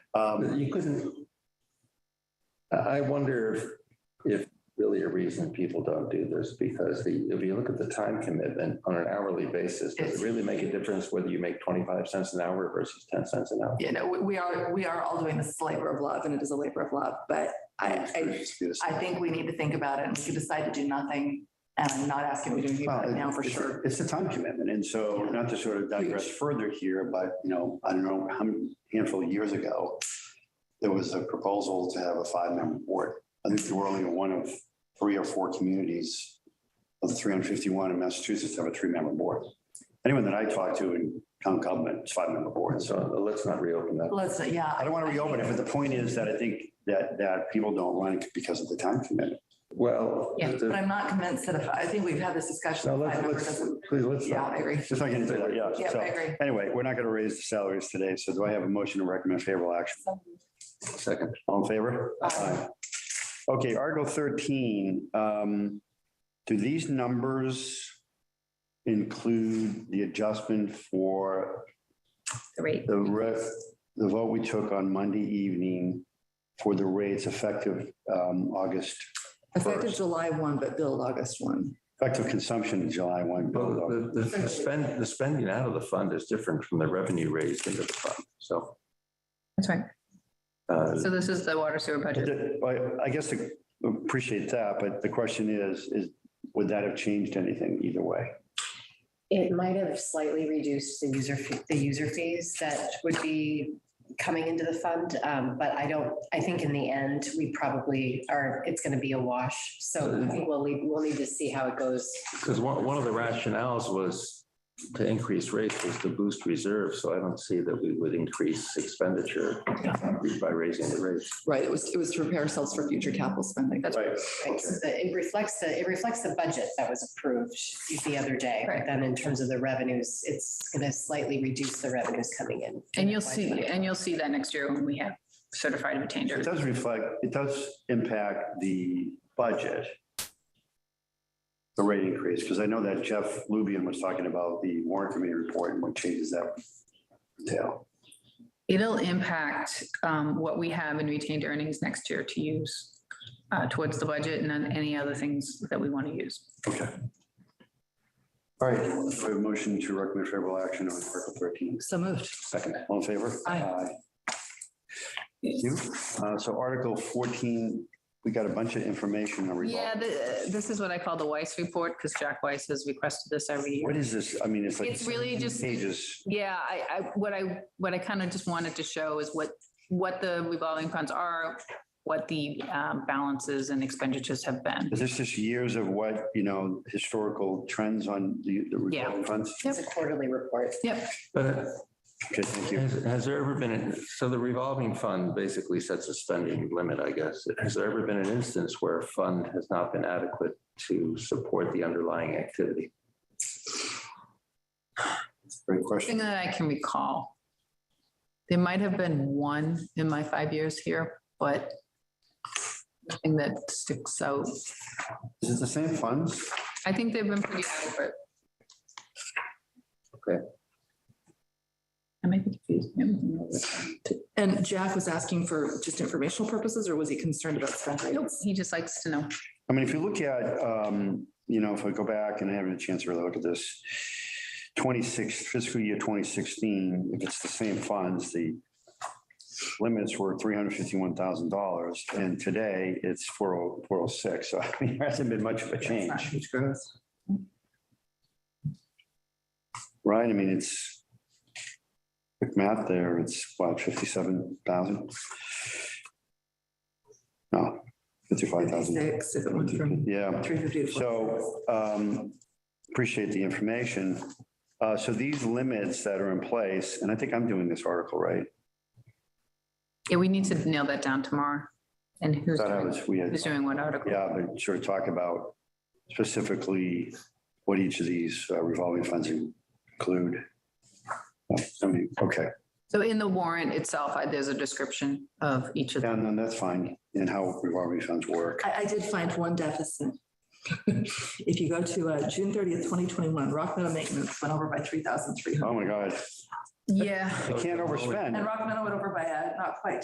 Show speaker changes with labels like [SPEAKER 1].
[SPEAKER 1] Um, you couldn't. I I wonder if, if really a reason people don't do this, because the, if you look at the time commitment on an hourly basis, does it really make a difference whether you make twenty-five cents an hour versus ten cents an hour?
[SPEAKER 2] You know, we- we are, we are all doing this as a labor of love and it is a labor of love, but I, I, I think we need to think about it and we could decide to do nothing. And I'm not asking we do anything
[SPEAKER 3] Well,
[SPEAKER 2] right now for
[SPEAKER 3] it's-
[SPEAKER 2] sure.
[SPEAKER 3] It's a time commitment. And so not to sort of digress further here, but you know, I don't know how many handful of years ago, there was a proposal to have a five-member board. I think there were only one of three or four communities of the 351 in Massachusetts have a three-member board. Anyone that I talk to in town government, it's five-member boards.
[SPEAKER 1] So let's not reopen that.
[SPEAKER 2] Let's, uh, yeah.
[SPEAKER 3] I don't want to reopen it, but the point is that I think that, that people don't run it because of the time commitment.
[SPEAKER 1] Well.
[SPEAKER 4] Yeah,
[SPEAKER 1] the-
[SPEAKER 2] But I'm not convinced that if, I think we've had this discussion.
[SPEAKER 1] No,
[SPEAKER 2] if
[SPEAKER 1] let's,
[SPEAKER 2] five member
[SPEAKER 1] let's,
[SPEAKER 2] doesn't-
[SPEAKER 1] please, let's.
[SPEAKER 2] Yeah, I agree.
[SPEAKER 3] Just like anything, yeah.
[SPEAKER 2] Yeah, I
[SPEAKER 3] So
[SPEAKER 2] agree.
[SPEAKER 3] anyway, we're not going to raise the salaries today. So do I have a motion to recommend favorable action?
[SPEAKER 1] Second.
[SPEAKER 3] All in favor?
[SPEAKER 2] Aye.
[SPEAKER 3] Okay, Article thirteen, um, do these numbers include the adjustment for
[SPEAKER 4] the rate.
[SPEAKER 3] the rest, the vote we took on Monday evening for the rates effective, um, August,
[SPEAKER 2] Effective July one, but billed August one.
[SPEAKER 3] effective consumption in July one?
[SPEAKER 1] Well, the, the- the spend, the spending out of the fund is different from the revenue raised into the fund, so.
[SPEAKER 4] That's right.
[SPEAKER 1] uh,
[SPEAKER 4] So this is the water sewer budget.
[SPEAKER 3] I, I guess I appreciate that, but the question is, is, would that have changed anything either way?
[SPEAKER 5] It might have slightly reduced the user, fee- the user fees that would be coming into the fund. um, But I don't, I think in the end, we probably are, it's going to be a wash. So I think we'll, leave- we'll need to see how it goes.
[SPEAKER 1] Because one, one of the rationales was to increase rates was to boost reserves, so I don't see that we would increase expenditure by raising the rates.
[SPEAKER 2] Right, it was, it was to prepare ourselves for future capital spending.
[SPEAKER 4] That's
[SPEAKER 3] Right.
[SPEAKER 5] Right, so the- It reflects the, it reflects the budget that was approved the other day. But
[SPEAKER 4] Right.
[SPEAKER 5] then in terms of the revenues, it's going to slightly reduce the revenues coming in.
[SPEAKER 4] And you'll see, and you'll see that next year when we have certified obtained.
[SPEAKER 3] It does reflect, it does impact the budget. The rate increase, because I know that Jeff Lubian was talking about the warrant committee report and what changes that entail.
[SPEAKER 4] It'll impact um, what we have in retained earnings next year to use uh, towards the budget and then any other things that we want to use.
[SPEAKER 3] Okay. All right, we have a motion to recommend favorable action on Article thirteen.
[SPEAKER 2] So moved.
[SPEAKER 3] Second. All in favor?
[SPEAKER 2] Aye.
[SPEAKER 3] Thank you. Uh, So Article fourteen, we got a bunch of information. on revolving.
[SPEAKER 4] Yeah, the- this is what I call the Weiss report because Jack Weiss has requested this every year.
[SPEAKER 3] What is this? I mean, it's like.
[SPEAKER 4] It's really just-
[SPEAKER 3] Pages.
[SPEAKER 4] Yeah, I, I, what I, what I kind of just wanted to show is what, what the revolving funds are, what the um, balances and expenditures have been.
[SPEAKER 3] Is this just years of what, you know, historical trends on the the
[SPEAKER 4] Yeah.
[SPEAKER 3] revolving funds?
[SPEAKER 5] It's a quarterly report.
[SPEAKER 1] But uh,
[SPEAKER 3] Okay, thank you.
[SPEAKER 1] has, has there ever been, an- so the revolving fund basically sets a spending limit, I guess. Has there ever been an instance where a fund has not been adequate to support the underlying activity?
[SPEAKER 3] Great
[SPEAKER 4] Thing
[SPEAKER 3] question.
[SPEAKER 4] that I can recall. There might have been one in my five years here, but nothing that sticks out.
[SPEAKER 3] Is it the same funds?
[SPEAKER 4] I think they've been pretty adequate.
[SPEAKER 1] Okay.
[SPEAKER 4] I might be confused.
[SPEAKER 2] And Jack was asking for just informational purposes, or was he concerned about spend rates?
[SPEAKER 4] He just likes to know.
[SPEAKER 3] I mean, if you look at, um, you know, if I go back and I haven't had a chance to really look at this, 26, fiscal year 2016, if it's the same funds, the limits were $351,000 and today it's oh, 40 406. So I mean, there hasn't been much of a change,
[SPEAKER 2] Huge growth.
[SPEAKER 3] right? I mean, it's quick math there. It's what, 57,000? No, 55,000.
[SPEAKER 2] Six, if it went from
[SPEAKER 3] Yeah.
[SPEAKER 2] three fifty to four.
[SPEAKER 3] So um, appreciate the information. Uh, So these limits that are in place, and I think I'm doing this article right.
[SPEAKER 4] Yeah, we need to nail that down tomorrow. And who's
[SPEAKER 3] Thought I
[SPEAKER 4] doing,
[SPEAKER 3] was, we had,
[SPEAKER 4] who's doing what article?
[SPEAKER 3] yeah, but sort of talk about specifically what each of these uh, revolving funds include. Oh, I mean, Okay,
[SPEAKER 4] So in the warrant itself, I- there's a description of each of them.
[SPEAKER 3] and then that's fine, and how revolving funds work.
[SPEAKER 2] I, I did find one deficit. If you go to uh, June thirtieth, twenty twenty-one, Rock Meadow Maintenance went over by three thousand three hundred.
[SPEAKER 3] Oh, my God.
[SPEAKER 4] Yeah.
[SPEAKER 3] I can't overspend.
[SPEAKER 2] And Rock Meadow went over by, uh, not quite